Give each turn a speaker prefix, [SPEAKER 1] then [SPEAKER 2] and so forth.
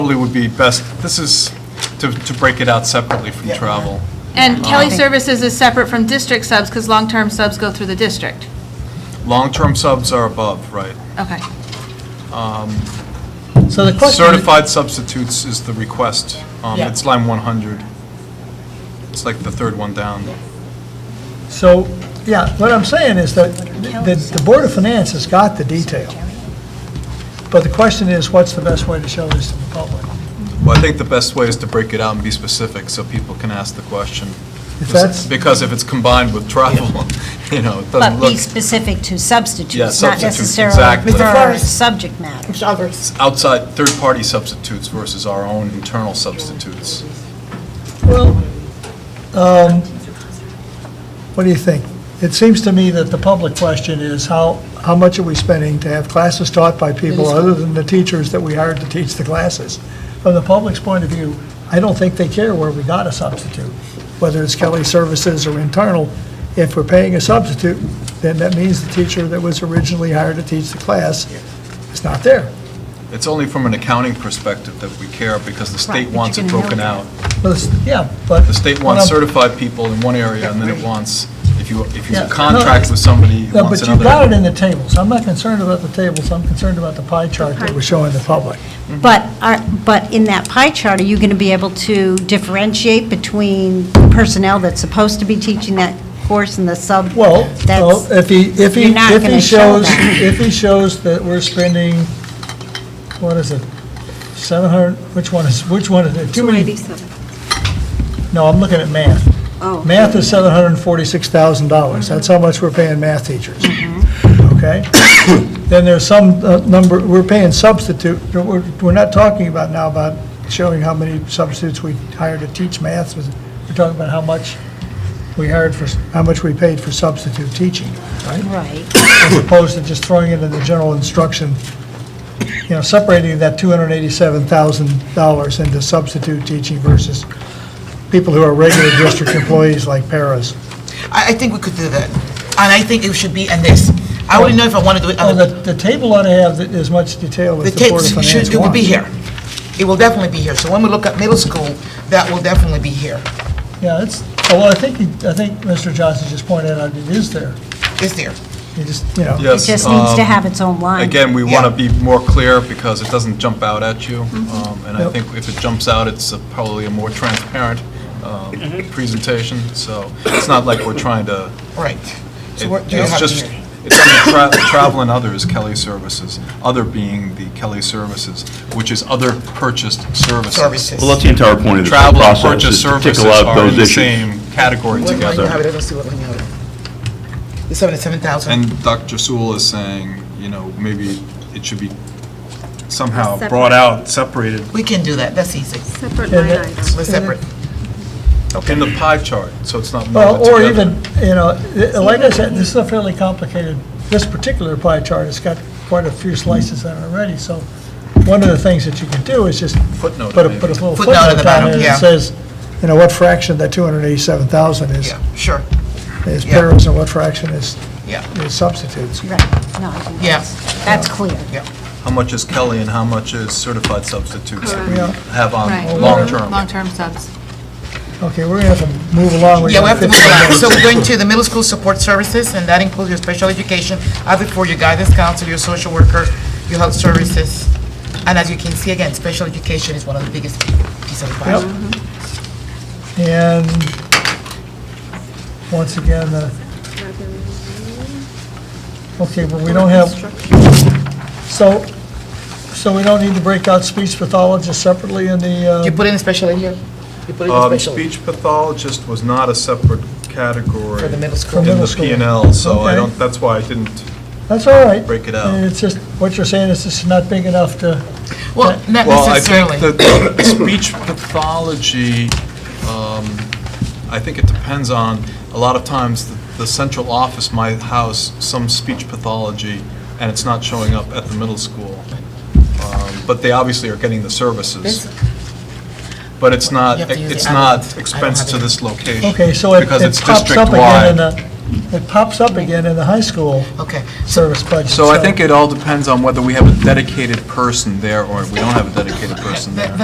[SPEAKER 1] Probably would be best, this is to, to break it out separately from travel.
[SPEAKER 2] And Kelly Services is separate from district subs because long-term subs go through the district.
[SPEAKER 1] Long-term subs are above, right.
[SPEAKER 2] Okay.
[SPEAKER 3] So the question.
[SPEAKER 1] Certified substitutes is the request. Um,
[SPEAKER 3] Yeah.
[SPEAKER 1] It's line 100. It's like the third one down.
[SPEAKER 3] So, yeah, what I'm saying is that the, the Board of Finance has got the detail. But the question is, what's the best way to show this to the public?
[SPEAKER 1] Well, I think the best way is to break it out and be specific so people can ask the question.
[SPEAKER 3] If that's-
[SPEAKER 1] Because if it's combined with travel, you know, it doesn't
[SPEAKER 4] But
[SPEAKER 1] look
[SPEAKER 4] be specific to
[SPEAKER 1] Yeah,
[SPEAKER 4] substitutes, not
[SPEAKER 1] substitutes,
[SPEAKER 4] necessarily
[SPEAKER 1] exactly.
[SPEAKER 4] for subject matter.
[SPEAKER 1] outside, third-party substitutes versus our own internal substitutes.
[SPEAKER 3] Well, um, what do you think? It seems to me that the public question is how, how much are we spending to have classes taught by people other than the teachers that we hired to teach the classes? From the public's point of view, I don't think they care where we got a substitute, whether it's Kelly Services or internal. If we're paying a substitute, then that means the teacher that was originally hired to teach the class is not there.
[SPEAKER 1] It's only from an accounting perspective that we care because the
[SPEAKER 4] Right,
[SPEAKER 1] state
[SPEAKER 4] but
[SPEAKER 1] wants
[SPEAKER 4] you're
[SPEAKER 1] it
[SPEAKER 4] gonna know
[SPEAKER 1] broken
[SPEAKER 4] that.
[SPEAKER 1] out.
[SPEAKER 3] Well, it's- Yeah, but.
[SPEAKER 1] The state
[SPEAKER 3] what
[SPEAKER 1] wants
[SPEAKER 3] I'm-
[SPEAKER 1] certified people in one area, and then it wants, if you, if you
[SPEAKER 3] Yeah.
[SPEAKER 1] contract with somebody, it
[SPEAKER 3] No,
[SPEAKER 1] wants
[SPEAKER 3] but you got it
[SPEAKER 1] another.
[SPEAKER 3] in the tables. I'm not concerned about the tables, I'm concerned about the pie chart that we're showing the public.
[SPEAKER 4] But, are- but in that pie chart, are you going to be able to differentiate between personnel that's supposed to be teaching that course and the sub?
[SPEAKER 3] Well, well,
[SPEAKER 4] that's-
[SPEAKER 3] if he, if he,
[SPEAKER 4] You're not
[SPEAKER 3] if he
[SPEAKER 4] gonna show
[SPEAKER 3] shows,
[SPEAKER 4] that.
[SPEAKER 3] if he shows that we're spending, what is it? 700, which one is, which one is it? Too many, no, I'm looking at math.
[SPEAKER 4] Oh.
[SPEAKER 3] Math is $746,000. That's how much we're paying math teachers.
[SPEAKER 4] Mm-hmm.
[SPEAKER 3] Okay? Then there's some uh, number, we're paying substitute, we're, we're not talking about now about showing how many substitutes we hired to teach math. We're talking about how much we hired for, how much we paid for substitute teaching, right?
[SPEAKER 4] Right,
[SPEAKER 3] as opposed to just throwing it in the general instruction, you know, separating that $287,000 into substitute teaching versus people who are regular district employees like paras.
[SPEAKER 5] I, I think we could do that. And I think it should be in this. I wouldn't know if I want to do it
[SPEAKER 3] Oh,
[SPEAKER 5] on
[SPEAKER 3] the,
[SPEAKER 5] the,
[SPEAKER 3] the table ought to have th- as much detail
[SPEAKER 5] the
[SPEAKER 3] as the Board
[SPEAKER 5] tapes,
[SPEAKER 3] of Finance
[SPEAKER 5] should, it will be
[SPEAKER 3] wants.
[SPEAKER 5] here. It will definitely be here. So when we look at middle school, that will definitely be here.
[SPEAKER 3] Yeah, it's, oh, well, I think, he- I think Mr. Johnson just pointed out it is there.
[SPEAKER 5] It's there.
[SPEAKER 3] He just, you know.
[SPEAKER 4] it
[SPEAKER 1] Yes,
[SPEAKER 4] just needs to
[SPEAKER 1] um,
[SPEAKER 4] have its own line.
[SPEAKER 1] Again, we want to
[SPEAKER 5] Yeah.
[SPEAKER 1] be more clear because it doesn't jump out at you. um, And I
[SPEAKER 3] Yep.
[SPEAKER 1] think if it jumps out, it's a- probably a more transparent um, presentation. So it's not like we're trying to,
[SPEAKER 5] Right. So
[SPEAKER 1] it-
[SPEAKER 5] what do you
[SPEAKER 1] it's
[SPEAKER 5] have
[SPEAKER 1] just,
[SPEAKER 5] here?
[SPEAKER 1] it's under tra- travel and others, Kelly Services, other being the Kelly Services, which is other purchased services.
[SPEAKER 5] Services.
[SPEAKER 6] Well, that's the entire point of this whole
[SPEAKER 1] Travel and
[SPEAKER 6] process,
[SPEAKER 1] purchase
[SPEAKER 6] is to
[SPEAKER 1] services
[SPEAKER 6] tickle out
[SPEAKER 1] are in
[SPEAKER 6] those
[SPEAKER 1] the
[SPEAKER 6] issues.
[SPEAKER 1] same category
[SPEAKER 5] What line you
[SPEAKER 1] together.
[SPEAKER 5] have it? I don't see what line you have it. The seventy-seven thousand.
[SPEAKER 1] And Dr. Sewell is saying, you know, maybe it should be somehow brought out, separated
[SPEAKER 5] We can do that. That's easy.
[SPEAKER 7] Separate
[SPEAKER 3] And
[SPEAKER 7] line
[SPEAKER 3] it-
[SPEAKER 7] items.
[SPEAKER 5] We're separate.
[SPEAKER 1] in the pie chart, so it's not
[SPEAKER 3] Well,
[SPEAKER 1] molded
[SPEAKER 3] or
[SPEAKER 1] together.
[SPEAKER 3] even, you know, i- like I said, this is a fairly complicated, this particular pie chart has got quite a few slices on it already, so one of the things that you can do is just put a,
[SPEAKER 1] Footnote it,
[SPEAKER 3] put a
[SPEAKER 1] maybe.
[SPEAKER 3] little
[SPEAKER 5] Footnote at the
[SPEAKER 3] footnote down
[SPEAKER 5] bottom,
[SPEAKER 3] there
[SPEAKER 5] yeah.
[SPEAKER 3] that says, you know, what fraction of that 287,000 is,
[SPEAKER 5] Yeah, sure.
[SPEAKER 3] is
[SPEAKER 5] yeah.
[SPEAKER 3] paras and what fraction is
[SPEAKER 5] Yeah.
[SPEAKER 3] is substitutes.
[SPEAKER 4] Right, no, I think
[SPEAKER 5] Yeah.
[SPEAKER 4] that's- that's clear.
[SPEAKER 1] How much is Kelly and how much is certified substitutes that we
[SPEAKER 3] Correct.
[SPEAKER 1] have on
[SPEAKER 2] Right.
[SPEAKER 1] long-term?
[SPEAKER 2] Long-term subs.
[SPEAKER 3] Okay, we're going to have to move along.
[SPEAKER 5] Yeah, we have to move on. So
[SPEAKER 3] on.
[SPEAKER 5] we're going to the middle school support services, and that includes your special education, other for your guidance counselor, your social worker, your health services. And as you can see, again, special education is one of the biggest pieces of the pie.
[SPEAKER 3] And, once again, the, okay, but we don't have, so, so we don't need to break out speech pathologists separately in the,
[SPEAKER 5] You
[SPEAKER 3] uh,
[SPEAKER 5] put in a special in here? You put in a
[SPEAKER 1] Um,
[SPEAKER 5] special
[SPEAKER 1] Speech pathologist was not a separate category
[SPEAKER 5] for the
[SPEAKER 1] in
[SPEAKER 5] middle school?
[SPEAKER 3] middle
[SPEAKER 1] the
[SPEAKER 3] school.
[SPEAKER 1] P and L, so I
[SPEAKER 3] Okay.
[SPEAKER 1] don't, that's why I didn't,
[SPEAKER 3] that's all right.
[SPEAKER 1] Break it out.
[SPEAKER 3] It's just, what you're saying is this is not big enough to,
[SPEAKER 5] Well, not
[SPEAKER 1] well, I
[SPEAKER 5] necessarily.
[SPEAKER 1] think that speech pathology, um, I think it depends on, a lot of times, the- the central office might house some speech pathology, and it's not showing up at the middle school. Um, But they obviously are getting the services. But it's not,
[SPEAKER 5] You have to use
[SPEAKER 1] it's
[SPEAKER 5] the other- I
[SPEAKER 1] not
[SPEAKER 5] don't
[SPEAKER 1] expense
[SPEAKER 5] have
[SPEAKER 1] to
[SPEAKER 5] it.
[SPEAKER 1] this location.
[SPEAKER 3] okay, so it
[SPEAKER 1] Because
[SPEAKER 3] it
[SPEAKER 1] it's
[SPEAKER 3] pops up again
[SPEAKER 1] district-wide.
[SPEAKER 3] in the, It pops up again in the high school
[SPEAKER 5] Okay.
[SPEAKER 3] service budget.
[SPEAKER 1] So I think it all depends on whether we have a dedicated person there or we don't have a dedicated person there.